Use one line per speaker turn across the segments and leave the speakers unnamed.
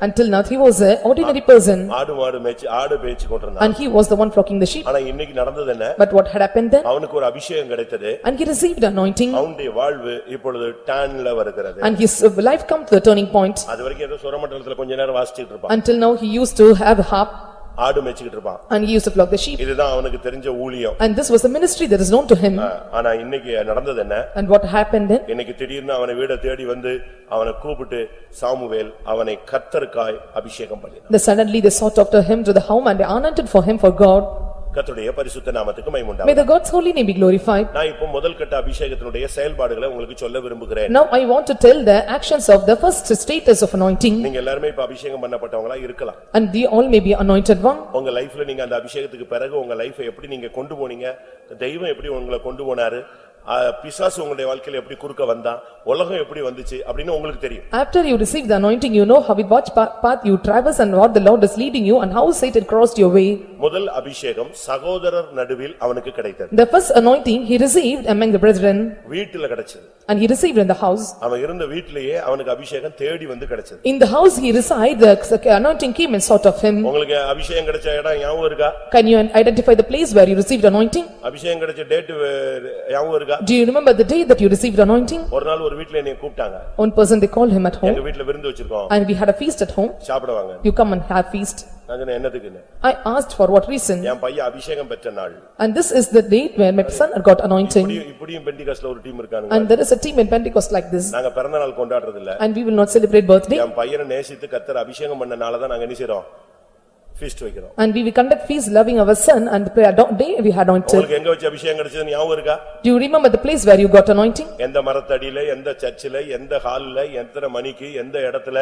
Until now, he was an ordinary person
ஆடு மாடு மேய்ச்சி ஆடு மேய்ச்சி கொண்டிருந்தான்
and he was the one flocking the sheep.
ஆனா இன்னைக்கு நடந்தது என்ன
But what had happened then?
அவனுக்கு ஒரு அபிஷேகம் கிடைத்தது
And he received anointing
அவனுடைய வாழ்வு இப்பொழுது டான்ல வருகிறது
and his life come to the turning point.
அது வரைக்கும் ஏதோ சுரமண்டலத்துல கொஞ்ச நேரம் வாசிச்சுட்டு இருப்பான்
Until now, he used to have a harp
ஆடு மேய்ச்சிக்கிட்டு இருப்பான்
and he used to flock the sheep.
இதுதான் அவனுக்கு தெரிஞ்ச ஊழியம்
And this was the ministry that is known to him.
ஆஹ், ஆனா இன்னைக்கு நடந்தது என்ன
And what happened then?
இன்னைக்கு திடீர்னு அவனை வீட தேடி வந்து அவனை கூப்பிட்டு சாமுவேல் அவனை கத்தருக்காய் அபிஷேகம் பண்ணினான்
Then suddenly they sought after him to the home and they anointed for him for God.
கர்த்தருடைய பரிசுத்த நாமத்துக்கு மைமுண்டா
May the God's holy name be glorified.
நான் இப்போ முதல் கட்ட அபிஷேகத்தினுடைய செயல்பாடுகளை உங்களுக்கு சொல்ல விரும்புகிறேன்
Now I want to tell the actions of the first status of anointing
நீங்க எல்லாருமே இப்ப அபிஷேகம் பண்ணப்பட்டவங்களா இருக்கலாம்
and they all may be anointed one.
உங்க லைஃப்ல நீங்க அந்த அபிஷேகத்துக்கு பிறகு உங்க லைஃபை எப்படி நீங்க கொண்டு போனீங்க தெய்வம் எப்படி உங்களை கொண்டு போனாரு ஆ, பிசாசு உங்களுடைய வாழ்க்கையில எப்படி குறுக்க வந்தான் உலகம் எப்படி வந்துச்சு அப்படின்னு உங்களுக்கு தெரியும்
After you receive the anointing, you know how with what pa- path you traverse and what the Lord is leading you and how Satan crossed your way.
முதல் அபிஷேகம் சகோதரர் நடுவில் அவனுக்கு கிடைத்தது
The first anointing he received among the brethren
வீட்டுல கிடைச்சது
and he received in the house.
அவன் இருந்த வீட்டிலேயே அவனுக்கு அபிஷேகம் தேடி வந்து கிடைச்சது
In the house he reside, the anointing came and sought of him.
உங்களுக்கு அபிஷேகம் கிடைச்ச இடம் ஞாபகம் இருக்கா
Can you identify the place where you received anointing?
அபிஷேகம் கிடைச்ச டேட் ஞாபகம் இருக்கா
Do you remember the day that you received anointing?
ஒரு நாள் ஒரு வீட்ல என்னைய கூப்பிட்டாங்க
One person they called him at home
எங்க வீட்ல விருந்து வச்சிருக்கோம்
and we had a feast at home.
சாப்பிடுவாங்க
You come and have feast.
நான் சொன்னேன் என்னதுக்குன்னு
I asked for what reason
என் பையன் அபிஷேகம் பெற்ற நாள்
and this is the date where my son got anointing
இப்படியும் இப்படியும் பெண்டிகாஸ்ல ஒரு டீம் இருக்கானுங்க
and there is a team in Pentecost like this
நாங்க பிறந்த நாள் கொண்டாடுறது இல்ல
and we will not celebrate birthday
என் பையனை நேசித்து கத்தர் அபிஷேகம் பண்ணனால தான் நாங்க என்ன செய்றோம் ஃபீஸ்ட் வைக்கிறோம்
and we will conduct feast loving our son and the prayer do- day we had anointed.
உங்களுக்கு எங்க வச்சு அபிஷேகம் கிடைச்சதுன்னு ஞாபகம் இருக்கா
Do you remember the place where you got anointing?
எந்த மரத்தடியில எந்த சர்ச்சில் எந்த ஹால்ல எத்தனை மணிக்கு எந்த இடத்துல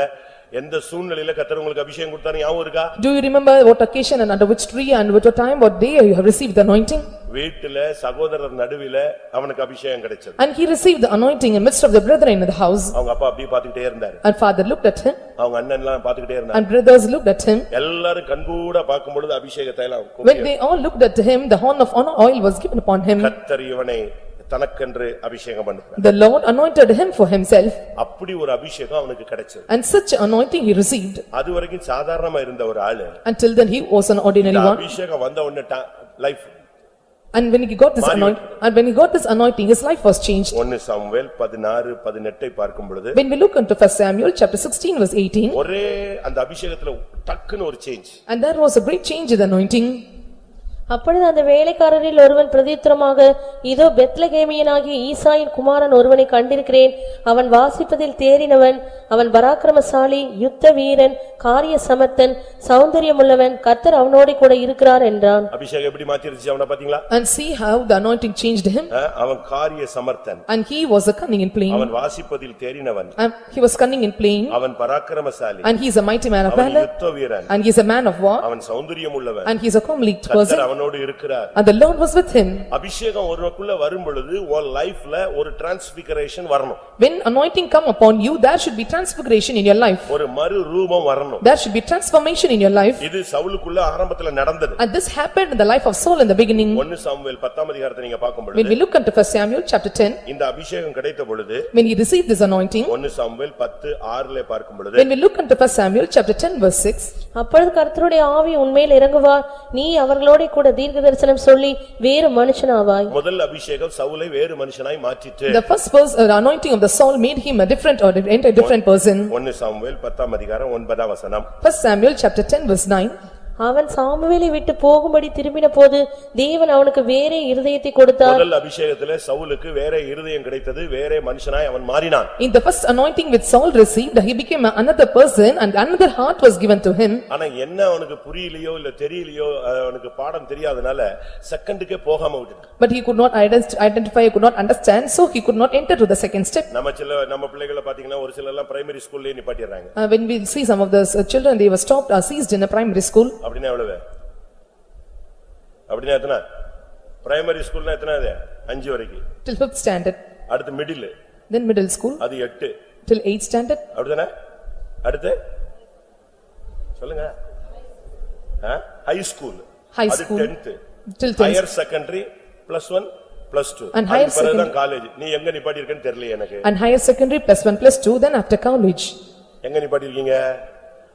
எந்த சூழ்நிலையில கத்தர் உங்களுக்கு அபிஷேகம் கொடுத்தாரு ஞாபகம் இருக்கா
Do you remember what occasion and under which tree and what time, what day you have received the anointing?
வீட்டுல சகோதரர் நடுவில அவனுக்கு அபிஷேகம் கிடைச்சது
And he received the anointing in midst of the brethren in the house
அவங்க அப்பா அப்படியே பார்த்துக்கிட்டே இருந்தாரு
and father looked at him
அவங்க அண்ணன் எல்லாம் பார்த்துக்கிட்டே இருந்தாரு
and brothers looked at him.
எல்லாரும் கண்கூட பார்க்கும் பொழுது அபிஷேகத்தை எல்லாம்
When
கும்பிட்டு,
they all looked at him, the horn of honor oil was given upon him.
கர்த்தர் இவனை தனக்கென்று அபிஷேகம் பண்ணுறார்
The Lord anointed him for himself
அப்படி ஒரு அபிஷேகம் அவனுக்கு கிடைச்சது
and such anointing he received.
அது வரைக்கும் சாதாரணமா இருந்த ஒரு ஆளு
Until then he was an ordinary
இந்த
one
அபிஷேகம் வந்த உடனே life
and when he got this anointing, and when he got this anointing, his life was changed.
ஒன்னு சாமுவேல் பதினாறு பதினெட்டை பார்க்கும் பொழுது
When we look into first Samuel, chapter sixteen, verse eighteen,
ஒரே அந்த அபிஷேகத்துல டக்குன்னு ஒரு change
and there was a great change in the anointing.
அப்பொழுது அந்த வேலைக்காரரில் ஒருவன் பிரதித்திரமாக இதோ பெத்லகேமியனாகிய ஈசாயின் குமாரன் ஒருவனை கண்டிருக்கிறேன் அவன் வாசிப்பதில் தேறினவன் அவன் பராக்கிரமசாலி யுத்த வீரன் காரிய சமர்த்தன் சௌந்தரியமுள்ளவன் கர்த்தர் அவனோடு கூட இருக்கிறார் என்றான்
அபிஷேகம் எப்படி மாத்திருச்சு அவனை பாத்தீங்களா
And see how the anointing changed him,
அஹ், அவன் காரிய சமர்த்தன்
and he was a cunning in playing,
அவன் வாசிப்பதில் தேறினவன்
and he was cunning in playing,
அவன் பராக்கிரமசாலி
and he is a mighty man of
அவன்
valor,
யுத்த வீரன்
and he is a man of war,
அவன் சௌந்தரியம் உள்ளவன்
and he is a comely
கர்த்தர்
person,
அவனோடு இருக்கிறார்
and the Lord was with him.
அபிஷேகம் ஒருவனுக்குள்ள வரும் பொழுது உன் லைஃப்ல ஒரு டிரான்ஸ்பிகரேஷன் வரணும்
When anointing come upon you, there should be transfiguration in your life.
ஒரு மறு ரூபம் வரணும்
There should be transformation in your life.
இது சவுலுக்குள்ள ஆரம்பத்துல நடந்தது
And this happened in the life of Saul in the beginning.
ஒன்னு Samuel பத்தாம் அதிகாரத்தை நீங்க பார்க்கும்
When
பொழுது
we look into first Samuel, chapter ten,
இந்த அபிஷேகம் கிடைத்த பொழுது
when he received this anointing,
ஒன்னு சாமுவேல் பத்து ஆறுல பார்க்கும் பொழுது
when we look into first Samuel, chapter ten, verse six,
அப்பொழுது கர்த்தருடைய ஆவி உன்மேல் இறங்குவார் நீ அவர்களோடே கூட தீர்க்க தரிசனம் சொல்லி வேறு மனுஷனாவாய்
முதல் அபிஷேகம் சவுலை வேறு மனுஷனாய் மாற்றிட்டு
the first verse, uh, the anointing of the Saul made him a different or a a different person.
ஒன்னு சாமுவேல் பத்தாம் அதிகாரம் ஒன்பதாம் வசனம்
First Samuel, chapter ten, verse nine,
அவன் சாமுவேலை விட்டு போகும்படி திரும்பின போது தேவன் அவனுக்கு வேறே இருதயத்தை கொடுத்தார்
முதல் அபிஷேகத்துல சவுலுக்கு வேற இருதயம் கிடைத்தது வேற மனுஷனாய் அவன் மாறினான்
in the first anointing which Saul received, he became another person and another heart was given to him.
ஆனா என்ன அவனுக்கு புரியலையோ இல்ல தெரியலையோ அஹ், அவனுக்கு பாடம் தெரியாதனால செகண்டுக்கே போகாம விட்டுட்டான்
But he could not ident- identify, could not understand, so he could not enter to the second step.
நம்ம சில நம்ம பிள்ளைகளை பாத்தீங்கன்னா ஒரு சில எல்லாம் பிரைமரி ஸ்கூல்லயே நிப்பாட்டிடுறாங்க
Uh, When we see some of the uh, children, they were stopped or seized in a primary school.
அப்படின்னா எவ்வளவு அப்படின்னா எத்தனை பிரைமரி ஸ்கூல்னா எத்தனை அது அஞ்சு வரைக்கும்
till fifth standard,
அடுத்து மிடில்
then middle school,
அது எட்டு
till eighth standard,
அப்படிதானே அடுத்து சொல்லுங்க ஹை ஸ்கூல்
High
அது
school.
Tenth
till tenth.
Higher secondary plus one plus two
And higher
பிறகுதான் காலேஜ் நீ எங்க நிப்பாட்டி இருக்கேன்னு தெரியல எனக்கு
And higher secondary plus one plus two, then after college.
எங்க நிப்பாட்டி இருக்கீங்க